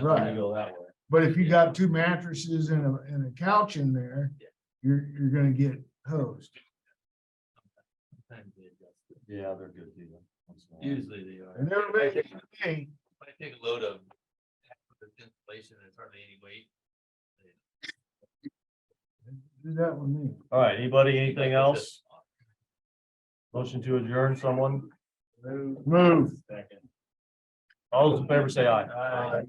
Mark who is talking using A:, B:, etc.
A: and then
B: Right.
A: you go that way.
B: But if you got two mattresses and a, and a couch in there,
C: Yeah.
B: you're, you're gonna get hosed.
C: Sometimes they adjust it.
A: Yeah, they're good deal. Once in a while.
C: Usually they are.
B: And they're
C: If I
B: making,
C: take-
B: hey,
C: if I take a load of. with Inflation, there's hardly any weight.
B: do that with me.
A: All right, anybody,
C: Like
A: anything
C: it's
A: else?
C: just-
A: Motion to adjourn, someone?
B: Move.
A: All those in favor say aye.
C: Aye.